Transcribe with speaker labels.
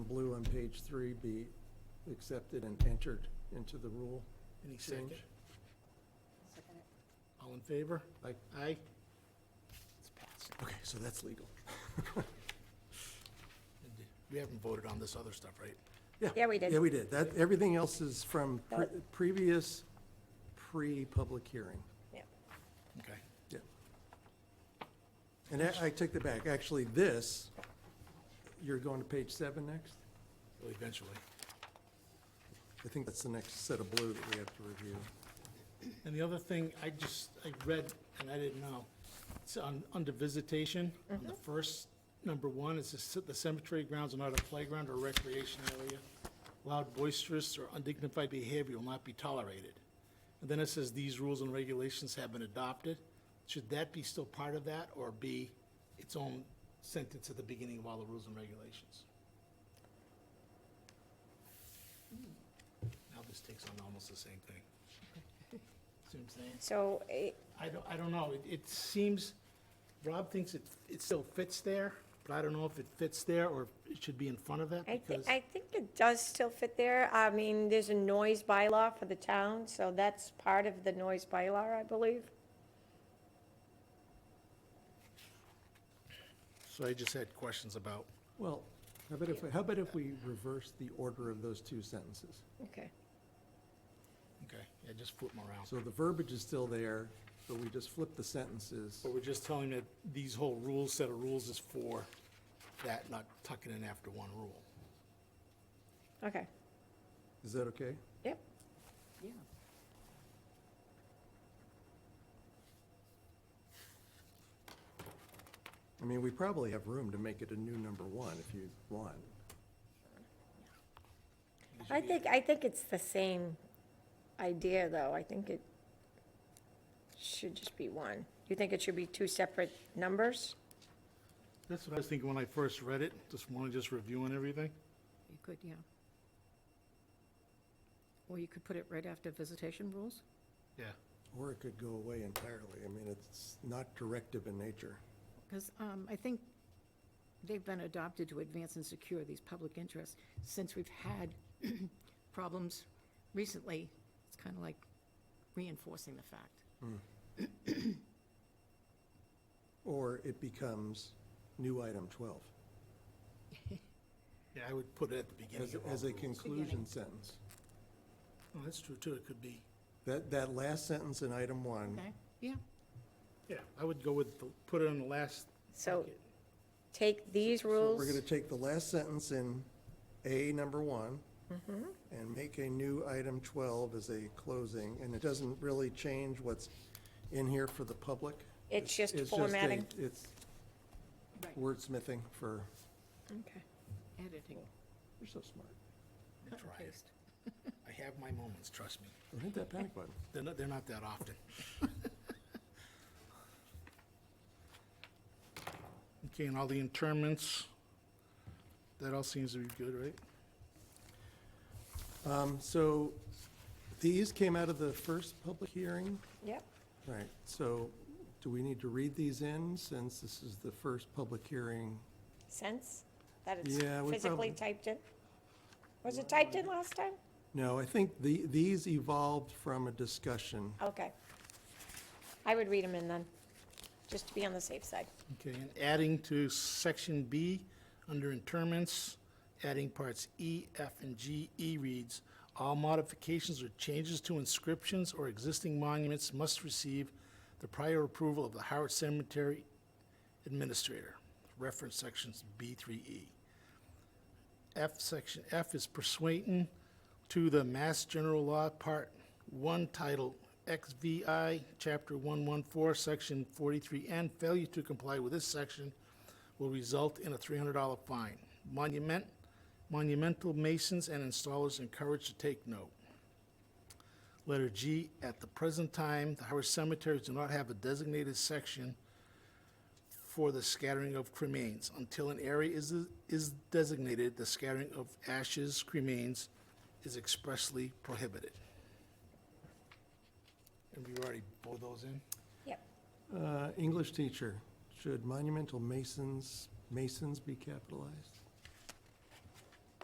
Speaker 1: blue on page three be accepted and entered into the rule
Speaker 2: Any second?
Speaker 1: change?
Speaker 3: Second it.
Speaker 2: All in favor?
Speaker 1: Aye.
Speaker 2: Aye. It's passed.
Speaker 1: Okay, so that's legal.
Speaker 2: We haven't voted on this other stuff, right?
Speaker 3: Yeah, we did.
Speaker 1: Yeah, we did. That, everything else is from pre- previous, pre-public hearing.
Speaker 3: Yep.
Speaker 2: Okay.
Speaker 1: Yeah. And I, I take that back. Actually, this, you're going to page seven next?
Speaker 2: Well, Eventually.
Speaker 1: I think that's the next set of blue that we have to review.
Speaker 2: And the other thing, I just, I read, and I didn't know, it's on, under visitation, on the first, number one, it says the cemetery grounds are not a playground or recreation area. Loud, boisterous, or undignified behavior will not be tolerated. And then it says these rules and regulations have been adopted. Should that be still part of that, or be its own sentence at the beginning of all the rules and regulations? Now this takes on almost the same thing. See what I'm saying?
Speaker 3: So, eh,
Speaker 2: I don't, I don't know, It- it seems, Rob thinks it, it still fits there, but I don't know if it fits there or if it should be in front of that
Speaker 3: I, thi-
Speaker 2: because,
Speaker 3: I think it does still fit there. I mean, there's a noise bylaw for the town, so that's part of the noise bylaw, I believe.
Speaker 2: so I just had questions about,
Speaker 1: Well, how about if, how about if we reverse the order of those two sentences?
Speaker 3: Okay.
Speaker 2: okay, yeah, just flip them around.
Speaker 1: So the verbiage is still there, but we just flip the sentences.
Speaker 2: But we're just telling that these whole rules, set of rules is for that, not tucking in after one rule.
Speaker 3: Okay,
Speaker 1: Is that okay?
Speaker 3: yep.
Speaker 1: I mean, we probably have room to make it a new number one if you want.
Speaker 3: I think, I think it's the same idea, though. I think it should just be one. You think it should be two separate numbers?
Speaker 2: That's what I was thinking when I first read it, this morning, just reviewing everything.
Speaker 4: You could, yeah. Or you could put it right after visitation rules?
Speaker 2: Yeah.
Speaker 1: Or it could go away entirely. I mean, it's not directive in nature.
Speaker 4: Because um, I think they've been adopted to advance and secure these public interests. Since we've had problems recently, it's kind of like reinforcing the fact.
Speaker 1: Or it becomes new item 12
Speaker 2: Yeah, I would put it at the beginning
Speaker 1: as,
Speaker 2: of all
Speaker 1: as
Speaker 2: the
Speaker 1: a
Speaker 2: rules.
Speaker 1: conclusion sentence.
Speaker 2: Oh, that's true too, it could be,
Speaker 1: That, that last sentence in item one,
Speaker 4: Okay? Yeah.
Speaker 2: yeah, I would go with, the- put it on the last.
Speaker 3: So take these rules.
Speaker 1: we're going to take the last sentence in A number one
Speaker 3: Mm-hmm.
Speaker 1: and make a new item 12 as a closing, and it doesn't really change what's in here for the public.
Speaker 3: It's just
Speaker 1: a-
Speaker 3: formatting.
Speaker 1: It's
Speaker 4: Right.
Speaker 1: wordsmithing for,
Speaker 3: Okay.
Speaker 4: Editing.
Speaker 1: you're so smart.
Speaker 2: Try
Speaker 4: cut and
Speaker 2: it.
Speaker 4: paste.
Speaker 2: I have my moments, trust me.
Speaker 1: Don't hit that panic button.
Speaker 2: They're not, they're not that often. Okay, and all the interments, that all seems to be good, right?
Speaker 1: Um, So these came out of the first public hearing.
Speaker 3: Yep.
Speaker 1: All right, so do we need to read these in since this is the first public hearing?
Speaker 3: sense that it's
Speaker 1: Yeah, we probably-
Speaker 3: physically
Speaker 1: um,
Speaker 3: typed in? Was it typed in last time?
Speaker 1: No, I think the, these evolved from a discussion.
Speaker 3: Okay. I would read them in then, just to be on the safe side.
Speaker 2: Okay, and adding to section B, under interments, adding parts E, F, and G, E reads, "All modifications or changes to inscriptions or existing monuments must receive the prior approval of the Howard Cemetery Administrator." Reference sections B through E. F section, F is pursuant to the Mass General Law, Part 1, Title XVI, Chapter 114, Section 43N. Failure to comply with this section will result in a $300 fine. Monument, monumental masons and installers encouraged to take note. Letter G, at the present time, the Howard cemeteries do not have a designated section for the scattering of cremains. Until an area is, is designated, the scattering of ashes, cremains is expressly prohibited. And we've already pulled those in?
Speaker 3: Yep.
Speaker 1: Uh, English teacher, should monumental masons, masons be capitalized?